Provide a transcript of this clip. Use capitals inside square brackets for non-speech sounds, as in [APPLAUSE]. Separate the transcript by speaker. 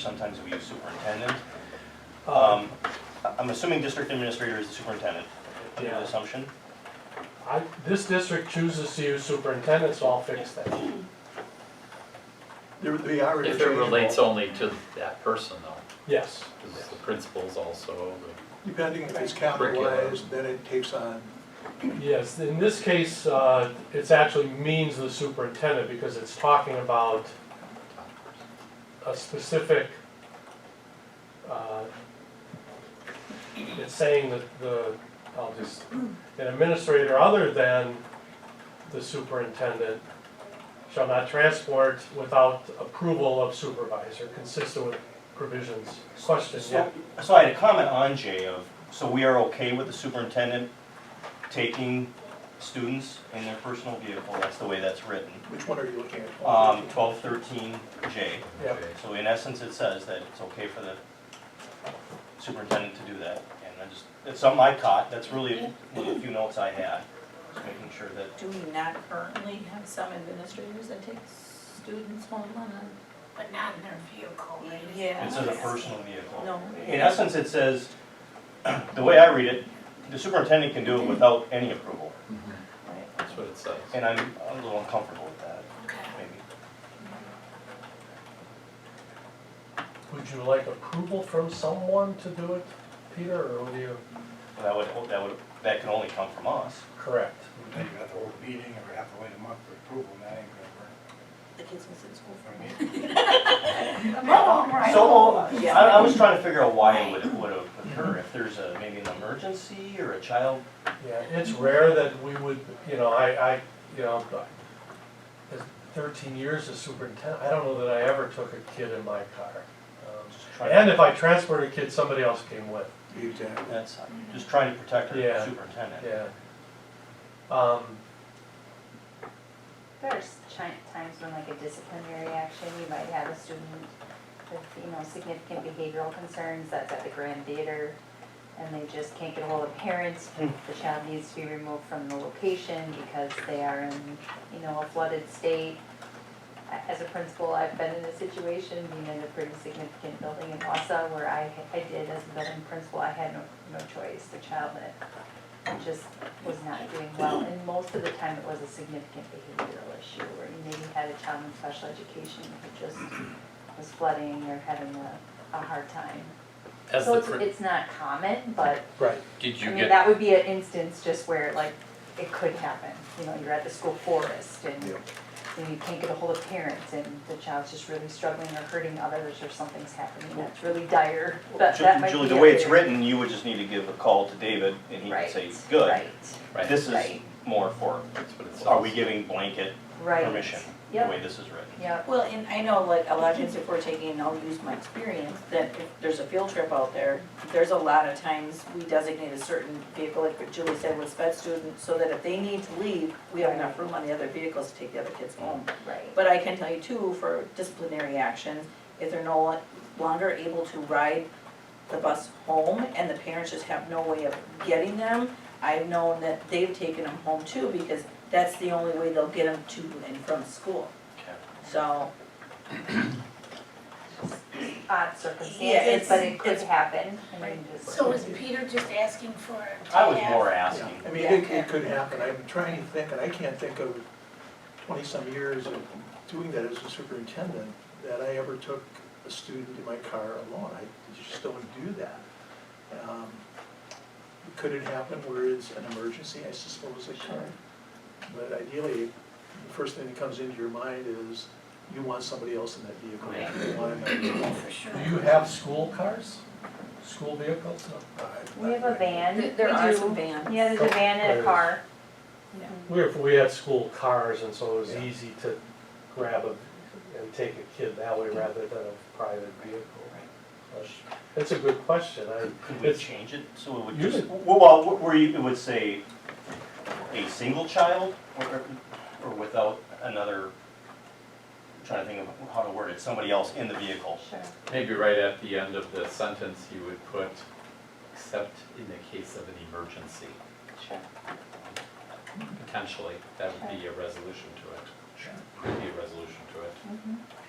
Speaker 1: Sometimes we use superintendent.
Speaker 2: Uh-huh.
Speaker 1: Um, I- I'm assuming district administrator is the superintendent, under the
Speaker 2: Yeah.
Speaker 1: assumption.
Speaker 2: I, this district chooses to use superintendent, so I'll fix that.
Speaker 3: They're- They are
Speaker 4: If it relates
Speaker 3: interchangeable,
Speaker 4: only to that person though,
Speaker 2: Yes,
Speaker 4: because the principal's also,
Speaker 3: depending if it's
Speaker 4: Curriculum.
Speaker 3: capitalized, then it takes on,
Speaker 2: yes, in this case, uh, it's actually means the superintendent, because it's talking about a specific, uh, it's saying that the, I'll just, an administrator other than the superintendent shall not transport without approval of supervisor, consistent with provisions. Question, yeah?
Speaker 1: So so I had a comment on Jay of, so we are okay with the superintendent taking students in their personal vehicle, that's the way that's written.
Speaker 3: which one are you looking at?
Speaker 1: Um, twelve thirteen J,
Speaker 2: Yeah.
Speaker 1: so in essence, it says that it's okay for the superintendent to do that. And I just, it's something I caught, that's really one of the few notes I had, just making sure that
Speaker 5: Do we not currently have some administrators that take students home on a?
Speaker 6: But not in their vehicle, right?
Speaker 5: Yeah.
Speaker 1: It says a personal vehicle.
Speaker 5: No.
Speaker 1: In essence, it says, [CLEARS THROAT] the way I read it, the superintendent can do it without any approval,
Speaker 4: that's what it says.
Speaker 1: and I'm a little uncomfortable with that,
Speaker 6: Okay.
Speaker 1: maybe.
Speaker 2: Would you like approval from someone to do it, Peter, or would you?
Speaker 1: But That would, that would, that can only come from us.
Speaker 2: Correct.
Speaker 7: Then you have to hold a meeting or have to wait a month for approval, and that ain't gonna work.
Speaker 5: The kids miss in school.
Speaker 1: [LAUGHS]
Speaker 7: I mean,
Speaker 6: Mom, right?
Speaker 1: So, I,
Speaker 5: Yeah.
Speaker 1: I was trying to figure out why it would, would occur, if there's a, maybe an emergency or a child.
Speaker 2: Yeah, it's rare that we would, you know, I, I, you know, as thirteen years as superintendent, I don't know that I ever took a kid in my car. Um,
Speaker 1: just trying-
Speaker 2: And if I transported a kid, somebody else came with,
Speaker 3: Exactly.
Speaker 1: That's, just trying to protect
Speaker 2: Yeah.
Speaker 1: our superintendent.
Speaker 2: yeah. Um,
Speaker 8: There's chi- times when like a disciplinary action, you might have a student with, you know, significant behavioral concerns that's at the Grand Theater and they just can't get a hold of parents. The child needs to be removed from the location because they are in, you know, a flooded state. I- As a principal, I've been in a situation, being in a pretty significant building in Wausau where I, I did as a building principal, I had no, no choice. The child that and just was not doing well, and most of the time it was a significant behavioral issue, where you maybe had a child in special education who just was flooding or having a, a hard time.
Speaker 4: As
Speaker 8: So
Speaker 4: the,
Speaker 8: it's,
Speaker 4: prin-
Speaker 8: it's not common, but,
Speaker 2: right,
Speaker 4: did
Speaker 8: I
Speaker 4: you
Speaker 8: mean,
Speaker 4: get,
Speaker 8: that would be an instance just where like, it could happen, you know, you're at the school forest and
Speaker 3: Yeah.
Speaker 8: you know, you can't get a hold of parents and the child's just really struggling or hurting others or something's happening, that's really dire, that,
Speaker 1: Ju-
Speaker 8: that might be
Speaker 1: Julie,
Speaker 8: a
Speaker 1: the way it's
Speaker 8: very-
Speaker 1: written, you would just need to give a call to David, and he would
Speaker 8: Right,
Speaker 1: say, good.
Speaker 8: Right,
Speaker 4: right, that's
Speaker 1: This is
Speaker 8: Right.
Speaker 1: more for,
Speaker 4: what it says.
Speaker 1: are we giving blanket
Speaker 8: right.
Speaker 1: permission, the
Speaker 8: Yep.
Speaker 1: way this is written.
Speaker 8: Yep,
Speaker 5: Well, and I know like a lot of times if we're taking, and I'll use my experience, that if there's a field trip out there, there's a lot of times we designate a certain vehicle, like what Julie said with sped students, so that if they need to leave, we have enough room on the other vehicles to take the other kids home.
Speaker 8: right.
Speaker 5: But I can tell you too, for disciplinary actions, if they're no longer able to ride the bus home and the parents just have no way of getting them, I've known that they've taken them home too, because that's the only way they'll get them to and from school.
Speaker 1: Okay.
Speaker 5: So,
Speaker 8: odd
Speaker 5: Yeah,
Speaker 8: circumstances,
Speaker 5: it's-
Speaker 8: but it could
Speaker 5: it's-
Speaker 8: happen. I mean, just-
Speaker 6: So is Peter just asking for? to
Speaker 1: I was
Speaker 6: have-
Speaker 1: more
Speaker 3: Yeah,
Speaker 1: asking.
Speaker 3: I mean, it, it could happen, I'm trying to think, and I can't think of twenty-some years of doing that as a superintendent, that I ever took a student in my car alone, I just don't do that. Um, Could it happen where it's an emergency, I suppose it
Speaker 8: Sure.
Speaker 3: could. But ideally, the first thing that comes into your mind is, you want somebody else in that vehicle, you want another.
Speaker 6: For sure.
Speaker 2: do you have school cars, school vehicles?
Speaker 8: We have a van.
Speaker 5: there
Speaker 8: We
Speaker 5: are
Speaker 8: do.
Speaker 5: some vans.
Speaker 8: Yeah, there's a van and a car.
Speaker 2: We, we had school cars, and so it was easy to grab a, and take a kid that way rather than a private vehicle. That's a good question, I,
Speaker 1: Could we
Speaker 2: It's-
Speaker 1: change it so it would
Speaker 2: You
Speaker 1: just,
Speaker 2: could-
Speaker 1: well, well, wh- where you, it would say a single child or, or without another, I'm trying to think of how to word it, somebody else in the vehicle.
Speaker 8: Sure.
Speaker 4: Maybe right at the end of the sentence, you would put, except in the case of an emergency,
Speaker 8: Sure.
Speaker 4: potentially, that would be a resolution to it. Could be a resolution to it.
Speaker 8: Mhm.